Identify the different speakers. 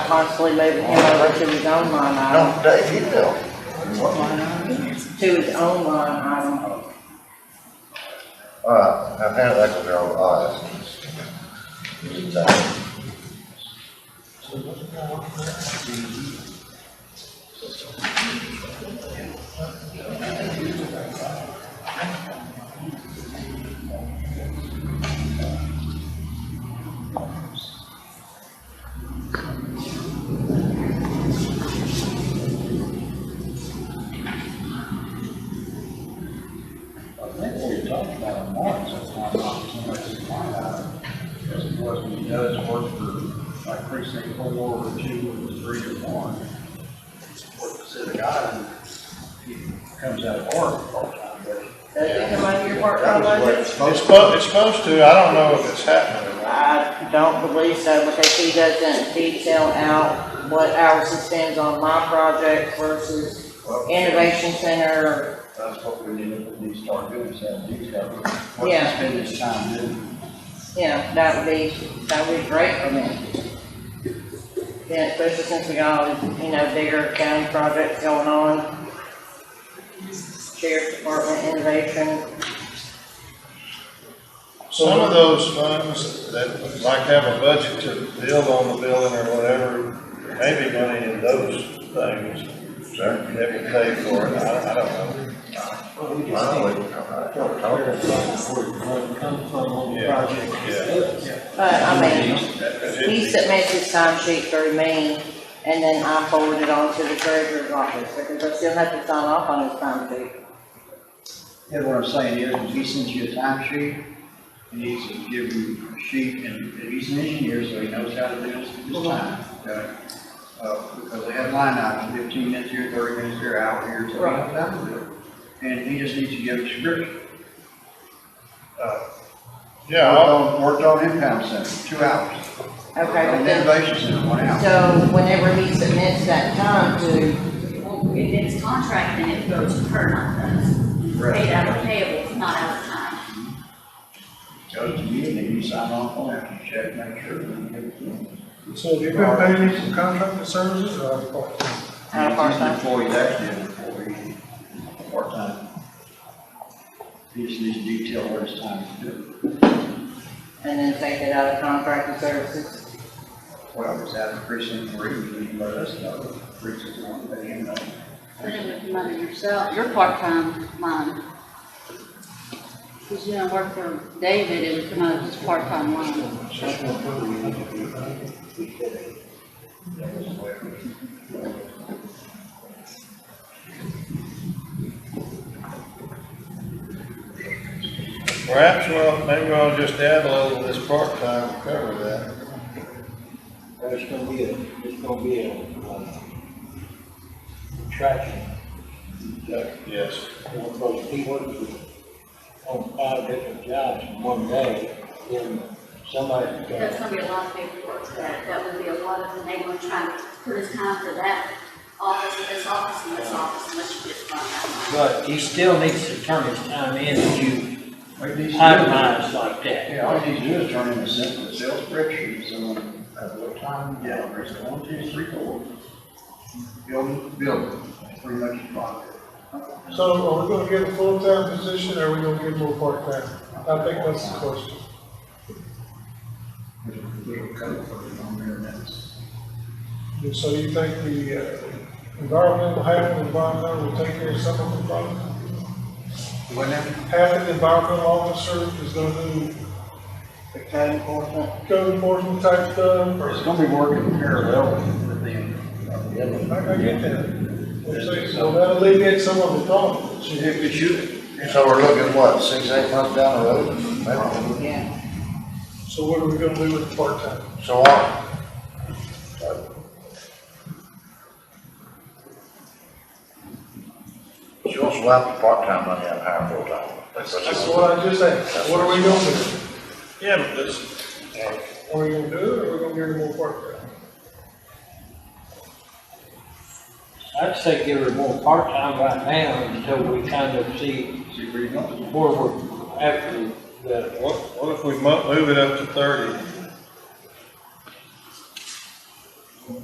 Speaker 1: constantly moving him over to his own line item,
Speaker 2: No, Dave, you know.
Speaker 1: to his own line item.
Speaker 2: All right, now hand that to Darrell, all right.
Speaker 3: I think what we talked about in March, that's why I'm not so much in my eye, as it was when he does work for like precinct four or two or three or one. Work the city guy, and he comes out of work part-time, but
Speaker 1: Does it come out of your work on budget?
Speaker 4: It's supposed, it's supposed to, I don't know if it's happening or not.
Speaker 1: I don't believe so, because he doesn't detail out what hours he spends on my project versus Innovation Center.
Speaker 3: that's what we need, we need to start doing, is have these guys. What he
Speaker 1: Yeah.
Speaker 3: spend his time doing.
Speaker 1: Yeah, that would be, that would be great for me. Yeah, especially since we got, all these, you know, bigger county projects going on. Sheriff's Department, Innovation,
Speaker 4: Some of those funds that like have a budget to build on the building or whatever, maybe money in those things that would pay for it, I, I don't know.
Speaker 5: Well, we just
Speaker 2: Finally,
Speaker 5: need
Speaker 2: we come out.
Speaker 5: to clarify where the money comes from on the
Speaker 4: Yeah,
Speaker 5: project.
Speaker 4: yeah.
Speaker 1: but I mean, he
Speaker 4: It-
Speaker 1: submits his time sheet through me, and then I forward it on to the treasurer's office, because I still have to sign off on his time sheet.
Speaker 3: Yeah, what I'm saying is, if he sends you a time sheet, he needs to give you a sheet, and if he's an engineer, so he knows how to do this, this time. okay? Uh, because they have line items, fifteen minutes here, thirty minutes here, hour here, so he knows how to do it. And he just needs to give a description. Uh,
Speaker 4: Yeah,
Speaker 3: Worked
Speaker 4: I'll-
Speaker 3: on, worked on impound center, two hours.
Speaker 1: Okay,
Speaker 3: On
Speaker 1: but
Speaker 3: the
Speaker 1: then
Speaker 3: innovation center, one hour.
Speaker 1: So whenever he submits that time to,
Speaker 6: Well, if it's contract, then it goes to her, not us. Paid out of payables, not out of time.
Speaker 3: Goes to you, and then you sign off on it, you check, make sure, and give it to him.
Speaker 7: So you're gonna pay me for contracted services or out of pocket?
Speaker 1: out of our
Speaker 3: He's an
Speaker 1: time,
Speaker 3: employee, he's actually an employee, part-time. He just needs to detail where his time is due,
Speaker 1: and then take it out of contracted services.
Speaker 3: whatever it's out of precinct three, you can let us know, precinct one, pay him know.
Speaker 6: Put it with the money yourself, your part-time line. Cause you don't work for David, it would come out of his part-time line.
Speaker 4: perhaps, well, maybe I'll just add a little of this part-time to cover that.
Speaker 5: There's gonna be a, there's gonna be a, uh, tracking,
Speaker 4: Yes.
Speaker 5: because he works with- on five different jobs in one day, then somebody's
Speaker 6: That's
Speaker 5: got,
Speaker 6: gonna be a lot of paperwork for that, that would be a lot of, and they gonna try to put his time for that office, and this office, and this office, unless you get from that line.
Speaker 5: but he still needs to turn his time in that you
Speaker 3: All he needs to do-
Speaker 5: itemize like that.
Speaker 3: Yeah, all he needs to do is turn in a simple sales spreadsheet, so when, at what time, yeah, precinct one, two, three, four. Building, building, pretty much the project.
Speaker 7: So are we gonna get a full-time position or are we gonna get more part-time? I think that's the question.
Speaker 3: There's a little code for it on there, and that's.
Speaker 7: And so you think the uh, environmental, half of the environmental will take care of some of the problem?
Speaker 3: What now?
Speaker 7: Half of the environmental officer is gonna do
Speaker 1: The code enforcement,
Speaker 7: code enforcement type stuff or?
Speaker 3: It's gonna be working parallel with them.
Speaker 7: I, I get that. I'm saying, So that'll alleviate some of the problems.
Speaker 3: So if it's you,
Speaker 2: So we're looking, what, six, eight months down the road? Maybe.
Speaker 1: yeah.
Speaker 7: So what are we gonna do with the part-time?
Speaker 2: So what? She wants to wipe the part-time money out of higher full-time.
Speaker 7: That's, that's what I just asked. What are we gonna do?
Speaker 4: Yeah, but this,
Speaker 7: Are we gonna do it or are we gonna give them more part-time?
Speaker 5: I'd say give her more part-time right now until we kind of see
Speaker 3: see where you want
Speaker 5: where we're after the
Speaker 4: what, what if we mo- move it up to thirty?